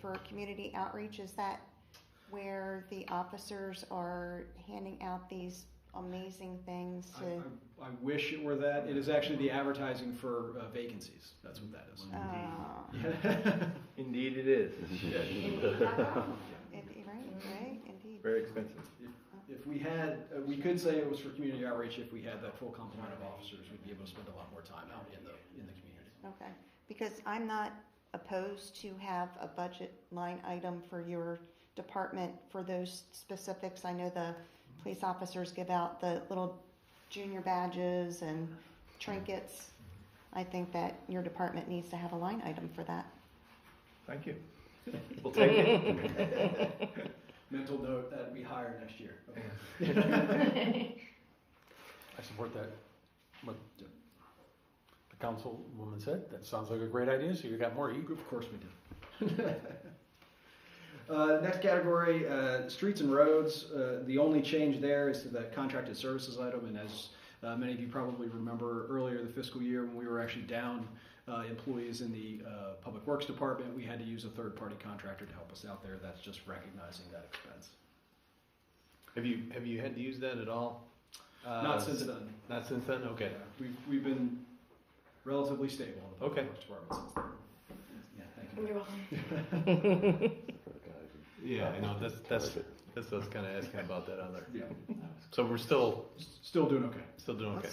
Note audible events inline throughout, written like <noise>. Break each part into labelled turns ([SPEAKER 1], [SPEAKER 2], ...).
[SPEAKER 1] for community outreach, is that where the officers are handing out these amazing things
[SPEAKER 2] I,
[SPEAKER 1] to?
[SPEAKER 2] I, I wish it were that. It is actually the advertising for uh, vacancies. That's what that is.
[SPEAKER 1] Oh.
[SPEAKER 3] Indeed it is.
[SPEAKER 1] It- Right, right, indeed.
[SPEAKER 3] Very expensive.
[SPEAKER 2] <laughs> if we had, uh, we could say it was for community outreach. If we had that full complement of officers, we'd be able to spend a lot more time out in the in the community.
[SPEAKER 1] Okay, because I'm not opposed to have a budget line item for your department for those specifics. I know the police officers give out the little junior badges and trinkets. I think that your department needs to have a line item for that.
[SPEAKER 3] Thank you. We'll take it.
[SPEAKER 2] Mental note that'd be higher next year. Okay.
[SPEAKER 4] I support that, what the <laughs> the councilwoman said, that sounds like a great idea, so you got more e-" heat.
[SPEAKER 2] Of course we do. <laughs> Uh, next category, uh, streets and roads. Uh, the only change there is to the contracted services item, and as uh, many of you probably remember earlier the fiscal year when we were actually down uh, employees in the uh, public works department, we had to use a third-party contractor to help us out there. That's just recognizing that expense.
[SPEAKER 5] Have you have you had to use that at all? Uh,
[SPEAKER 2] Not since then.
[SPEAKER 5] Not since then. Okay.
[SPEAKER 2] We've, we've been relatively stable in the public
[SPEAKER 5] Okay.
[SPEAKER 2] works department since then. Yeah, thank you.
[SPEAKER 5] Yeah, I know. That's that's that's what I was kind of asking about that other.
[SPEAKER 2] Yeah,
[SPEAKER 5] So we're still
[SPEAKER 2] still doing okay.
[SPEAKER 5] still doing okay.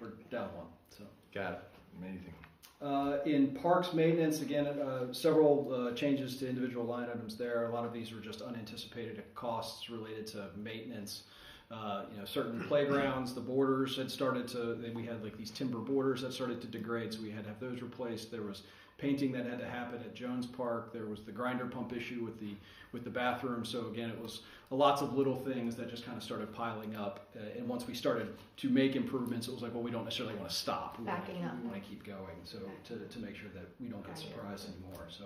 [SPEAKER 2] We're down one, so.
[SPEAKER 5] Got it.
[SPEAKER 3] Amazing.
[SPEAKER 2] Uh, In parks maintenance, again, uh, several uh, changes to individual line items there. A lot of these were just unanticipated costs related to maintenance. Uh, You know, certain playgrounds, the borders had started to, then we had like these timber borders that started to degrade, so we had to have those replaced. There was painting that had to happen at Jones Park. There was the grinder pump issue with the, with the bathroom. So again, it was lots of little things that just kind of started piling up. Uh, And once we started to make improvements, it was like, well, we don't necessarily want to stop. We wanna-
[SPEAKER 6] Backing up.
[SPEAKER 2] We want to keep going. So to, to make sure that we don't get
[SPEAKER 6] Gotcha.
[SPEAKER 2] surprised anymore. So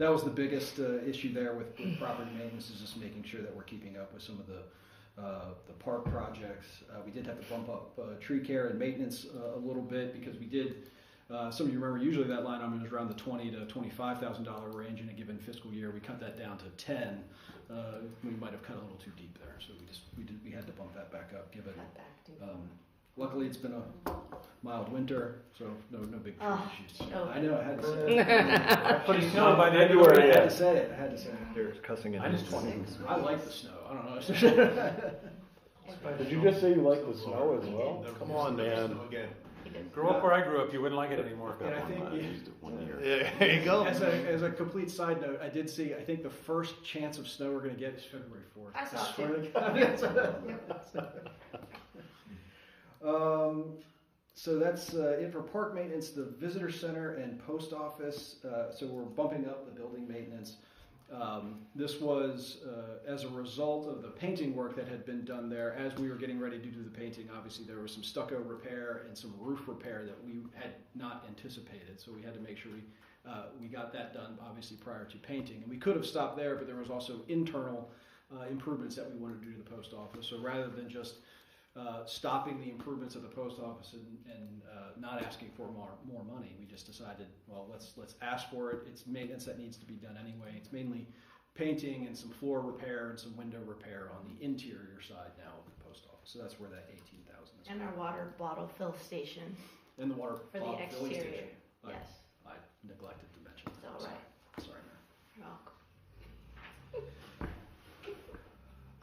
[SPEAKER 2] that was the biggest uh, issue there with, with property maintenance is just making sure that we're keeping up with some of the uh, the park projects. Uh, we did have to bump up uh, tree care and maintenance uh, a little bit because we did. Uh, some of you remember usually that line item is around the twenty to twenty-five thousand dollar range in a given fiscal year. We cut that down to ten. Uh, we might have cut a little too deep there, so we just we did we had to bump that back up given um, luckily, it's been a mild winter, so no, no big tree
[SPEAKER 6] Oh,
[SPEAKER 2] issues.
[SPEAKER 6] oh.
[SPEAKER 2] I know, I had to say it.
[SPEAKER 4] Pretty soon by the end
[SPEAKER 2] I had to say it, I had to say it.
[SPEAKER 3] There's cussing in
[SPEAKER 4] Minus
[SPEAKER 3] this.
[SPEAKER 4] 20.
[SPEAKER 2] I like the snow, I don't know. <laughs>
[SPEAKER 7] Did you just say you like the snow as well?
[SPEAKER 5] Come on, man.
[SPEAKER 4] Grow up where I grew up, you wouldn't like it anymore.
[SPEAKER 2] And I think,
[SPEAKER 5] Yeah, there you go.
[SPEAKER 2] as a, as a complete side note, I did see, I think the first chance of snow we're gonna get is February fourth.
[SPEAKER 6] I saw it too.
[SPEAKER 2] <laughs> Um, so that's uh, it for park maintenance, the visitor center and post office. Uh, so we're bumping up the building maintenance. Um, this was uh, as a result of the painting work that had been done there. As we were getting ready to do the painting, obviously there was some stucco repair and some roof repair that we had not anticipated. So we had to make sure we uh, we got that done obviously prior to painting. And we could have stopped there, but there was also internal uh, improvements that we wanted to do to the post office. So rather than just uh, stopping the improvements of the post office and, and uh, not asking for more, more money. We just decided, well, let's, let's ask for it. It's maintenance that needs to be done anyway. It's mainly painting and some floor repair and some window repair on the interior side now of the post office. So that's where that eighteen thousand is.
[SPEAKER 6] And our water bottle fill station,
[SPEAKER 2] And the water.
[SPEAKER 6] for the
[SPEAKER 2] bottle filling
[SPEAKER 6] exterior,
[SPEAKER 2] station. I-
[SPEAKER 6] yes,
[SPEAKER 2] I neglected to mention
[SPEAKER 6] it's
[SPEAKER 2] that.
[SPEAKER 6] all
[SPEAKER 2] so-
[SPEAKER 6] right.
[SPEAKER 2] Sorry, Mayor.
[SPEAKER 6] You're welcome.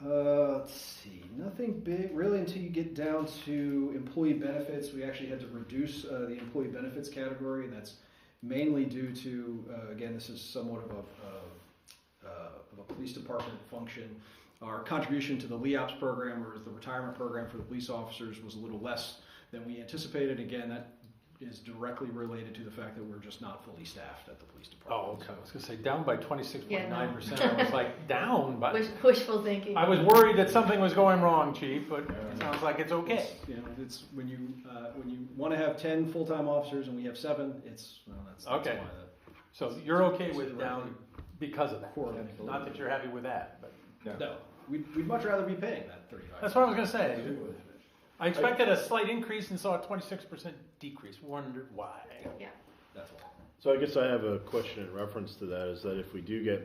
[SPEAKER 2] Uh, let's see, nothing big really until you get down to employee benefits. We actually had to reduce uh, the employee benefits category, and that's mainly due to uh, again, this is somewhat of a uh, uh, of a police department function. Our contribution to the LEOPS program, or the retirement program for the police officers, was a little less than we anticipated. Again, that is directly related to the fact that we're just not fully staffed at the police
[SPEAKER 4] Oh,
[SPEAKER 2] department.
[SPEAKER 4] okay, I was gonna say, down by twenty-six point nine percent, I was like, down, but
[SPEAKER 6] Wish, wishful thinking.
[SPEAKER 4] I was worried that something was going wrong, chief, but it sounds like it's okay.
[SPEAKER 2] It's, you know, it's when you uh, when you want to have ten full time officers and we have seven. It's well, that's, that's
[SPEAKER 4] Okay.
[SPEAKER 2] Why
[SPEAKER 4] So you're okay with down because of that? Not that you're happy with that, but,
[SPEAKER 2] that, no, we'd, we'd much rather be paying that thirty five.
[SPEAKER 4] that's what I was gonna say. I expected a slight increase and saw a twenty-six percent decrease, wondered why.
[SPEAKER 6] Yeah.
[SPEAKER 2] That's why.
[SPEAKER 7] So I guess I have a question in reference to that, is that if we do get